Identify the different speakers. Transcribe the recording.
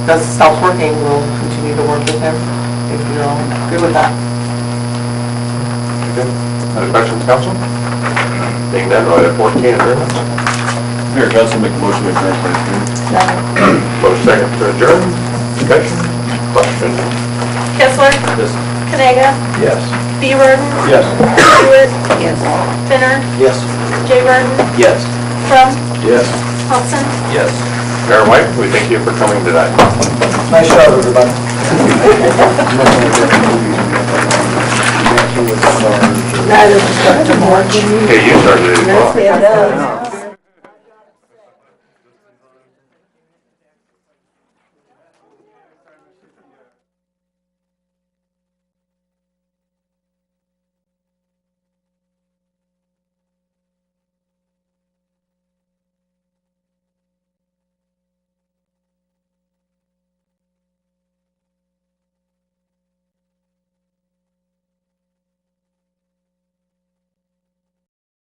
Speaker 1: does self-working, we'll continue to work with him if you're all good with that.
Speaker 2: Other questions, council? Being done, right at 14, adjournment.
Speaker 3: Mayor Council, make a motion to adjourn, please.
Speaker 2: Motion second to adjourn, discussion, question?
Speaker 4: Kessler,
Speaker 3: Yes.
Speaker 4: Kanaga,
Speaker 3: Yes.
Speaker 4: B. Burden,
Speaker 3: Yes.
Speaker 4: Stewart. Yes. Finner,
Speaker 3: Yes.
Speaker 4: J. Burden,
Speaker 3: Yes.
Speaker 4: Crum,
Speaker 3: Yes.
Speaker 4: Hudson.
Speaker 3: Yes.
Speaker 2: Mayor White, we thank you for coming tonight.
Speaker 5: Nice shot, everybody.
Speaker 2: Hey, you started it as well.
Speaker 6: It does.